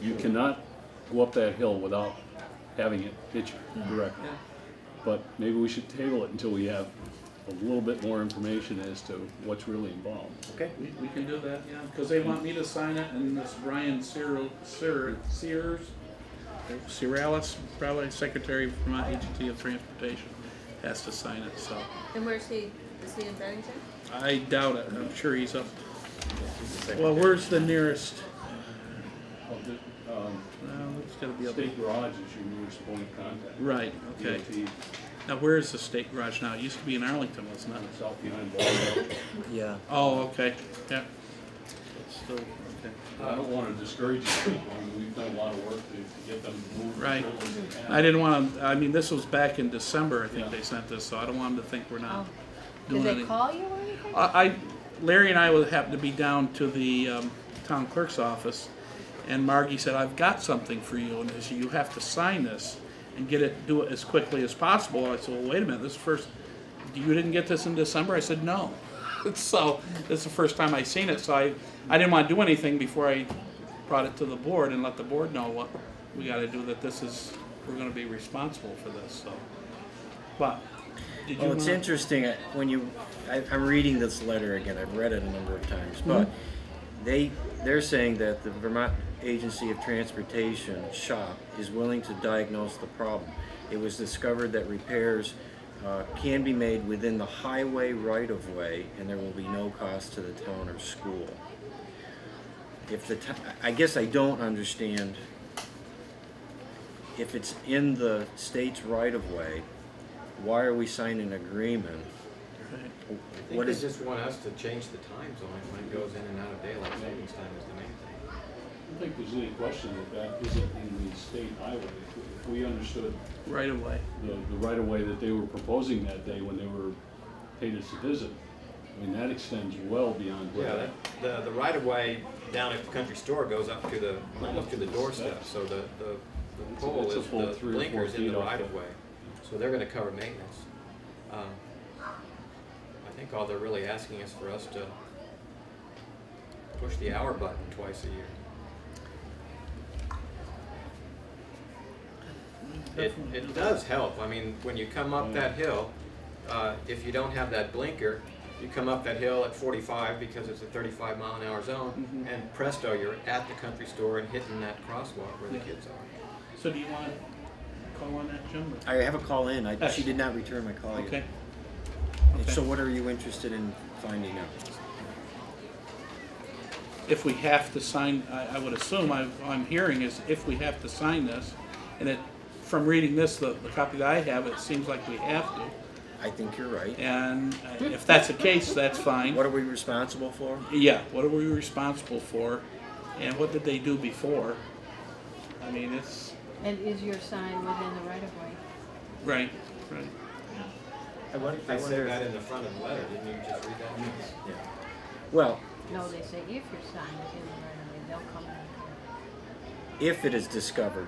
You cannot go up that hill without having it hit you directly. But maybe we should table it until we have a little bit more information as to what's really involved. Okay. We, we can do that, yeah, because they want me to sign it and this Brian Sear, Sear, Sears, Searalis, probably Secretary from my agency of transportation, has to sign it, so. And where's he? Is he in Bennington? I doubt it, I'm sure he's up. Well, where's the nearest, Well, the, um, well, it's gotta be up. State garage is your nearest point of contact. Right, okay. DOT, Now, where is the state garage now? It used to be in Arlington, wasn't it? South behind Baldwin. Yeah. Oh, okay, yeah. It's Still, okay. I don't wanna discourage you, I mean, we've done a lot of work to, to get them to move. Right. I Right. didn't wanna, I mean, this was back in December, I Yeah. think they sent this, so I don't want them to think we're not Oh. doing Did anything. they call you or anything? I, I- Larry and I would happen to be down to the um, town clerk's office, and Margie said, "I've got something for you, and she said, you have to sign this and get it, do it as quickly as possible." I said, "Well, wait a minute, this is first, you didn't get this in December?" I said, "No." so this is the first time I seen it, so I, I didn't want to do anything before I brought it to the board and let the board know what we got to do. That this is we're going to be responsible for this. So, but did you? Well, Oh, it's wanna- interesting uh, when you. I, I'm reading this letter again. I've read it a number of times, but they they're saying that the Vermont Agency of Transportation shop is willing to diagnose the problem. It was discovered that repairs uh, can be made within the highway right of way, and there will be no cost to the town or school. If the t- I guess I don't understand. If it's in the state's right of way, why are we signing an agreement? I think What they is- just want us to change the time zone when it goes in and out of daylight savings time is the main thing. I don't think there's any question that that isn't in the state highway. If we understood right away. the, the right of way that they were proposing that day when they were paid us a visit. I mean, that extends well beyond where Yeah, that. the, the right of way down at the country store goes up to the, almost to the doorstep, so the, the the It's a- pole it's a is, full the three or four blinker's in feet the off right the- of way. So they're gonna cover maintenance. Um, I think all they're really asking is for us to push the hour button twice a year. It, it does help, I mean, when you come up that hill, uh, if you don't have that blinker, you come up that hill at forty-five because it's a thirty-five mile an hour zone, Mm-hmm. and presto, you're at the country store and hitting that crosswalk where the Yeah. kids are. So do you want to call on that, Jim? I have a call in. I, she did not return my call Okay. yet. Okay. So what are you interested in finding out? If we have to sign, I, I would assume, I, I'm hearing is if we have to sign this, and it, from reading this, the, the copy that I have, it seems like we have to. I think you're right. And uh, if that's the case, that's fine. What are we responsible for? Yeah, what are we responsible for? And what did they do before? I mean, it's, And is your sign within the right of way? right, right. I wonder, They said that in the front of the letter, didn't you just read that? Yeah. Well, No, they say if your sign is in the right of way, they'll come and if it is discovered,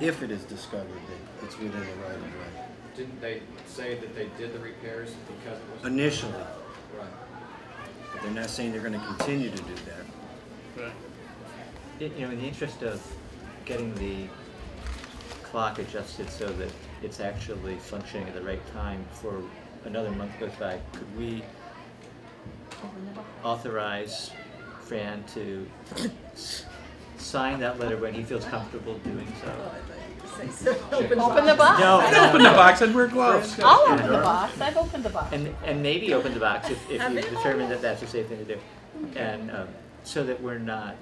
if it is discovered that it's within the right of way, Didn't they say that they did the repairs because it was? initially, Right. but they're not saying they're going to continue to do that. Right. You know, in the interest of getting the clock adjusted so that it's actually functioning at the right time before another month goes by, could we open it up. authorize Fran to s- sign that letter when he feels comfortable doing so? Open the box. No, I've no. Open the box and wear gloves. opened- I'll open the box. I've opened the box. And, and maybe open the box if, if you determine that that's a safe thing to do. And, um, so that we're not,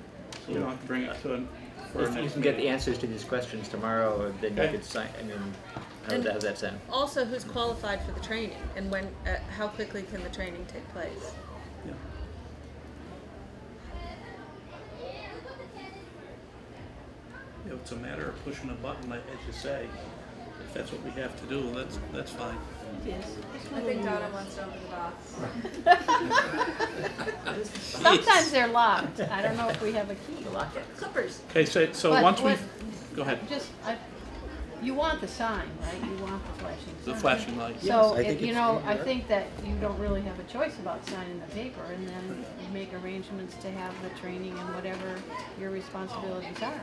You don't have to bring it to, an- for our if you next can get the meeting. answers to these questions tomorrow, then you Okay. could sign, I mean, how does And- that- how does that sound? Also, who's qualified for the training and when, uh, how quickly can the training take place? Yeah. You know, It's a matter of pushing a button, like as you say. If that's what we have to do, that's, that's fine. Yes. I think Donna wants to open the box. Sometimes they're locked. I don't know if we have a key. The lock. Clippers. Okay, so, so But once we, what- go ahead. Just, I, you want the sign, right? You want the flashing sign. The flashing lights. So, Yes, I if- think you it's know, I incorrect. think that you don't really have a choice about signing the paper and then you make arrangements to have the training and whatever your responsibilities are.